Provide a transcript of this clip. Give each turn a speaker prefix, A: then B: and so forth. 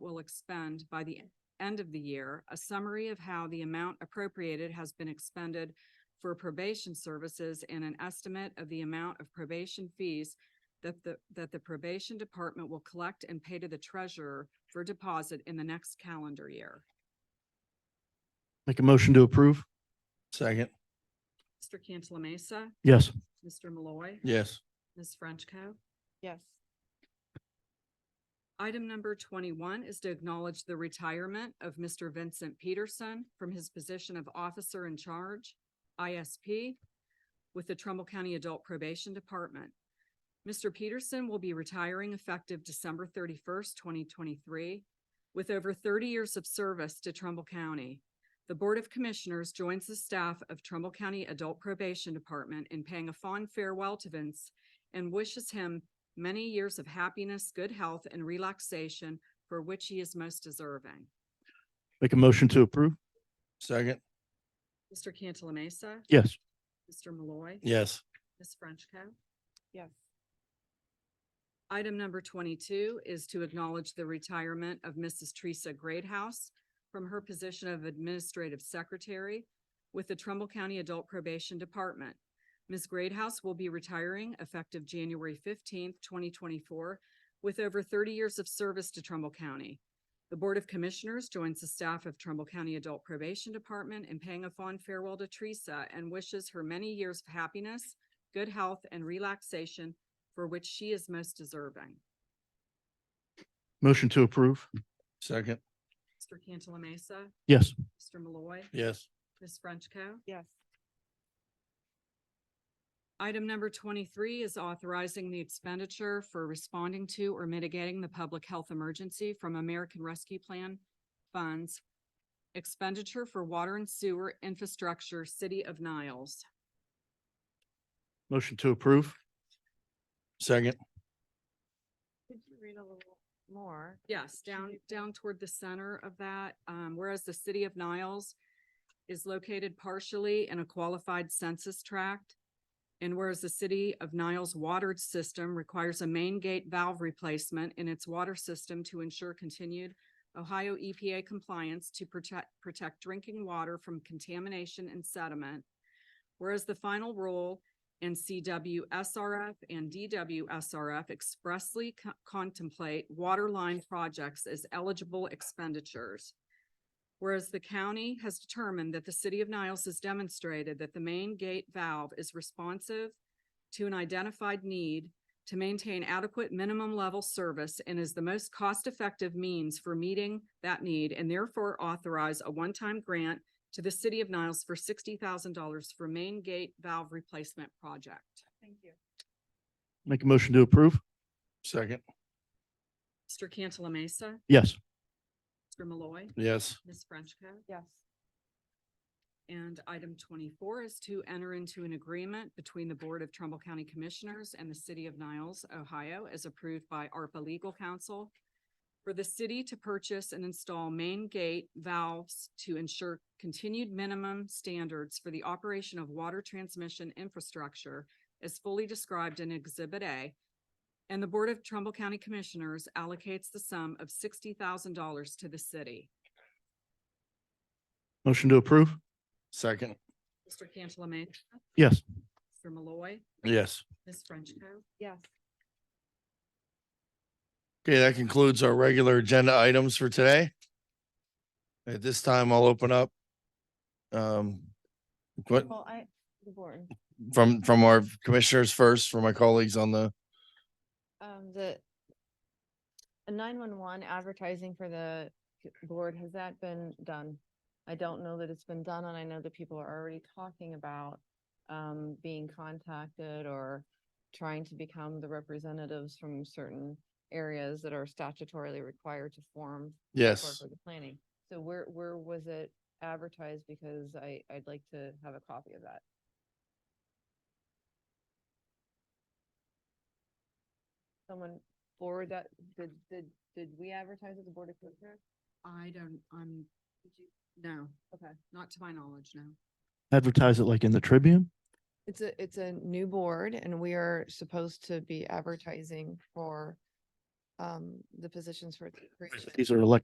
A: will expend by the end of the year, a summary of how the amount appropriated has been expended for probation services and an estimate of the amount of probation fees that the, that the probation department will collect and pay to the treasurer for deposit in the next calendar year.
B: Make a motion to approve?
C: Second.
A: Mr. Cantala Mesa,
B: Yes.
A: Mr. Malloy,
C: Yes.
A: Ms. Frenchco.
D: yes,
A: Item number twenty-one is to acknowledge the retirement of Mr. Vincent Peterson from his position of Officer in Charge, ISP, with the Trumbull County Adult Probation Department. Mr. Peterson will be retiring effective December thirty-first, twenty twenty-three, with over thirty years of service to Trumbull County. The Board of Commissioners joins the staff of Trumbull County Adult Probation Department in paying a fond farewell to Vince and wishes him many years of happiness, good health, and relaxation for which he is most deserving.
B: Make a motion to approve?
C: Second.
A: Mr. Cantala Mesa,
B: Yes.
A: Mr. Malloy,
C: Yes.
A: Ms. Frenchco.
D: yes,
A: Item number twenty-two is to acknowledge the retirement of Mrs. Teresa Greathouse from her position of Administrative Secretary with the Trumbull County Adult Probation Department. Ms. Greathouse will be retiring effective January fifteenth, twenty twenty-four, with over thirty years of service to Trumbull County. The Board of Commissioners joins the staff of Trumbull County Adult Probation Department in paying a fond farewell to Teresa and wishes her many years of happiness, good health, and relaxation for which she is most deserving.
B: Motion to approve?
C: Second.
A: Mr. Cantala Mesa,
B: Yes.
A: Mr. Malloy,
C: Yes.
A: Ms. Frenchco.
D: yes,
A: Item number twenty-three is authorizing the expenditure for responding to or mitigating the public health emergency from American Rescue Plan funds. Expenditure for water and sewer infrastructure, City of Niles.
B: Motion to approve?
C: Second.
D: could you read a little more?
A: Yes, down, down toward the center of that, um, whereas the city of Niles is located partially in a qualified census tract. And whereas the city of Niles water system requires a main gate valve replacement in its water system to ensure continued Ohio EPA compliance to protect, protect drinking water from contamination and sediment. Whereas the final rule and CWSRF and DWSRF expressly co- contemplate waterline projects as eligible expenditures. Whereas the county has determined that the city of Niles has demonstrated that the main gate valve is responsive to an identified need to maintain adequate minimum level service and is the most cost-effective means for meeting that need and therefore authorize a one-time grant to the city of Niles for sixty thousand dollars for main gate valve replacement project.
D: Thank you.
B: Make a motion to approve?
C: Second.
A: Mr. Cantala Mesa,
B: Yes.
A: Mr. Malloy,
C: Yes.
A: Ms. Frenchco.
D: Yes,
A: And item twenty-four is to enter into an agreement between the Board of Trumbull County Commissioners and the City of Niles, Ohio, as approved by ARPA Legal Counsel for the city to purchase and install main gate valves to ensure continued minimum standards for the operation of water transmission infrastructure as fully described in Exhibit A. And the Board of Trumbull County Commissioners allocates the sum of sixty thousand dollars to the city.
B: Motion to approve?
C: Second.
A: Mr. Cantala Mesa,
B: Yes.
A: Mr. Malloy,
C: Yes.
A: Ms. Frenchco.
D: yes,
C: Okay, that concludes our regular agenda items for today. At this time, I'll open up um, what,
D: well, I, the board,
C: from, from our commissioners first, for my colleagues on the,
D: um, the nine-one-one advertising for the c- board, has that been done? I don't know that it's been done, and I know that people are already talking about, um, being contacted or trying to become the representatives from certain areas that are statutorily required to form
C: yes.
D: For the planning. So where, where was it advertised? Because I, I'd like to have a copy of that. Someone forward that, did, did, did we advertise at the Board of Commissioners?
A: I don't, I'm, no.
D: Okay.
A: Not to my knowledge, no.
B: Advertise it like in the Tribune?
D: It's a, it's a new board and we are supposed to be advertising for, um, the positions for. the creation.
B: These are elect,